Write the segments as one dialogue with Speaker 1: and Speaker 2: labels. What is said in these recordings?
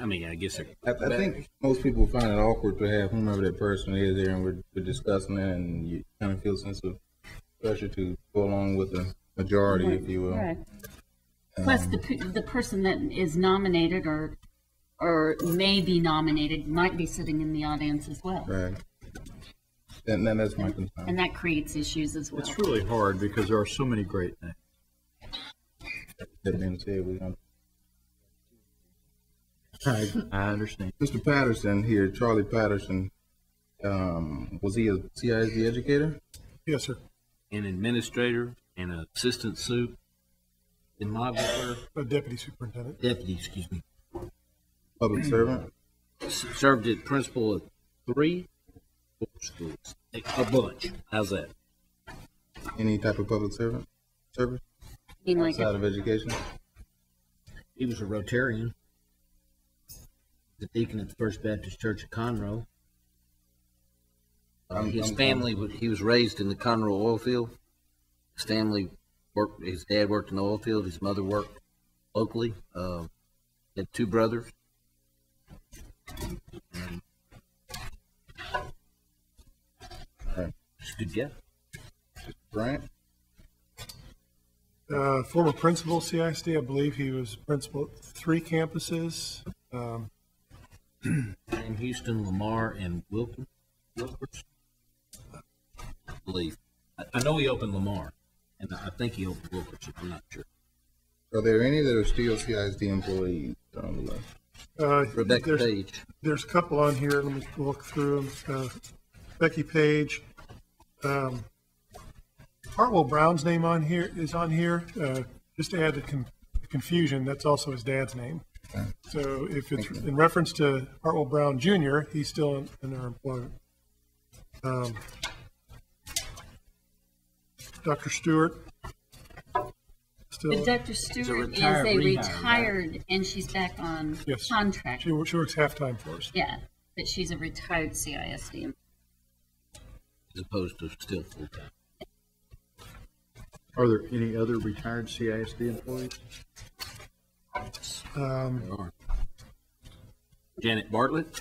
Speaker 1: I mean, I guess, sir.
Speaker 2: I, I think most people find it awkward to have whomever that person is there, and we're, we're discussing it, and you kind of feel a sense of pressure to go along with the majority, if you will. Um,
Speaker 3: Right. Plus, the, pe- the person that is nominated or, or may be nominated might be sitting in the audience as well.
Speaker 2: Right. And, and that's my concern.
Speaker 3: And that creates issues as well.
Speaker 4: It's really hard because there are so many great
Speaker 1: uh,
Speaker 4: things.
Speaker 2: That being said, we don't-
Speaker 4: I, I understand.
Speaker 2: Mr. Patterson here, Charlie Patterson, um, was he a CISD educator?
Speaker 5: Yes, sir.
Speaker 1: an administrator and an assistant soup, demographer,
Speaker 5: A Uh, deputy superintendent.
Speaker 1: deputy, excuse me.
Speaker 2: Public servant?
Speaker 1: S- Served as principal of three four schools, a a bunch. How's that?
Speaker 2: Any type of public servant? Service
Speaker 3: Being like,
Speaker 2: outside of education?
Speaker 6: He was a Rotarian. The deacon at the First Baptist Church of Conroe.
Speaker 1: Uh,
Speaker 2: I'm-
Speaker 1: his
Speaker 2: I'm-
Speaker 1: family, wa- he was raised in the Conroe oil field. His family worked, his dad worked in the oil field, his mother worked locally. Uh, had two brothers. And-
Speaker 2: Right.
Speaker 1: uh, Just a good guy.
Speaker 2: Bryant?
Speaker 5: Uh, former principal of CISD, I believe he was principal at three campuses. Um,
Speaker 1: In Houston, Lamar, and Wilkin, Wilkins, I believe. I, I know he opened Lamar, and I think he opened Wilkerson, I'm not sure.
Speaker 2: Are there any that are still CISD employees on the list?
Speaker 5: uh,
Speaker 1: Rebecca
Speaker 5: there's-
Speaker 1: Page,
Speaker 5: There's a couple on here, let me look through them. Uh, Becky Page, um, Hartwell Brown's name on here, is on here, uh, just to add to con- confusion, that's also his dad's name. So if it's in reference to Hartwell Brown Jr., he's still in- in our employment. Um, Dr. Stewart,
Speaker 3: but
Speaker 5: still,
Speaker 3: Dr. Stewart is a retired, and she's back on
Speaker 5: Yes.
Speaker 3: contract.
Speaker 5: she wo- she works half-time for us.
Speaker 3: Yeah, but she's a retired CISD.
Speaker 1: as opposed to still full-time.
Speaker 4: Are there any other retired CISD employees?
Speaker 5: Um,
Speaker 1: They are. Janet Bartlett,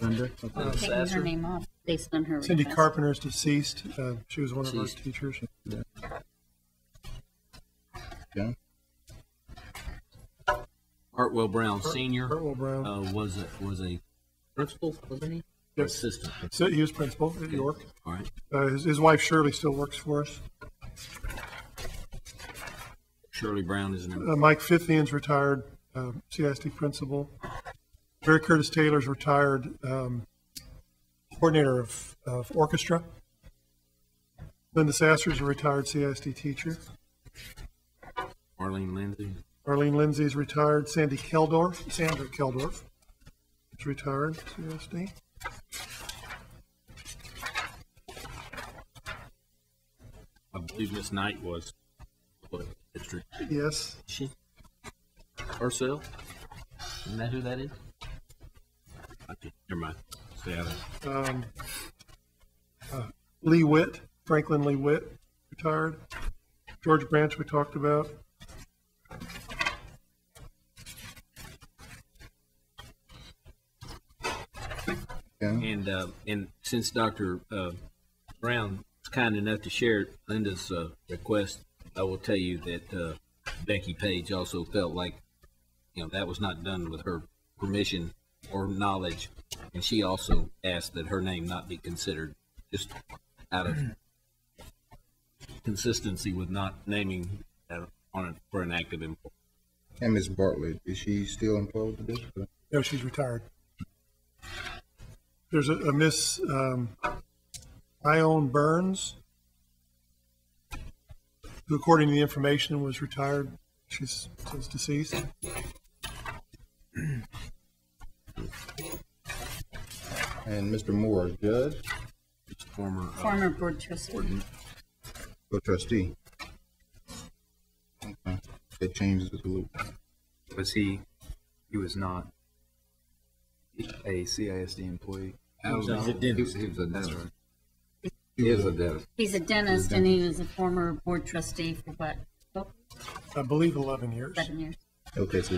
Speaker 4: Linda?
Speaker 3: I'm taking her
Speaker 1: Sasser.
Speaker 3: name off based on her
Speaker 5: Cindy
Speaker 3: request.
Speaker 5: Carpenter is deceased. Uh, she was one of our
Speaker 1: Deceased.
Speaker 5: teachers.
Speaker 2: Yeah.
Speaker 1: Hartwell Brown Senior,
Speaker 5: Hartwell Brown.
Speaker 1: uh, was a, was a principal, wasn't he? Or
Speaker 5: Yes.
Speaker 1: Assistant.
Speaker 5: So he was principal at York.
Speaker 1: All right.
Speaker 5: Uh, his, his wife Shirley still works for us.
Speaker 1: Shirley Brown is an,
Speaker 5: Uh, Mike Fithian's retired uh, CISD principal. Barry Curtis Taylor's retired um, coordinator of, of orchestra. Linda Sasser's a retired CISD teacher.
Speaker 1: Marlene Lindsay,
Speaker 5: Arlene Lindsay's retired. Sandy Keldorf, Sandra Keldorf, is retired CISD.
Speaker 1: I believe Miss Knight was, what, district,
Speaker 5: Yes.
Speaker 1: she? Herself? Isn't that who that is? Okay, never mind. Stay out of it.
Speaker 5: um, uh, Lee Witt, Franklin Lee Witt, retired. George Branch, we talked about.
Speaker 2: Yeah.
Speaker 1: And, uh, and since Dr. uh, Brown was kind enough to share Linda's, uh, request, I will tell you that, uh, Becky Page also felt like, you know, that was not done with her permission or knowledge. And she also asked that her name not be considered, just out of consistency with not naming uh, on, a- for an active employee.
Speaker 2: And Ms. Bartlett, is she still employed with the district?
Speaker 5: No, she's retired. There's a, a Miss um, Ione Burns, who, according to the information, was retired. She's since deceased.
Speaker 2: And Mr. Moore, is judge
Speaker 1: Former, uh,
Speaker 3: Former board trustee.
Speaker 2: or trustee? Okay, That changes it a little.
Speaker 4: Was he, he was not a CISD employee?
Speaker 2: He is a dentist.
Speaker 3: He's a dentist, and he was a former board trustee for what,
Speaker 5: I believe 11 years.
Speaker 3: seven years?
Speaker 2: Okay, so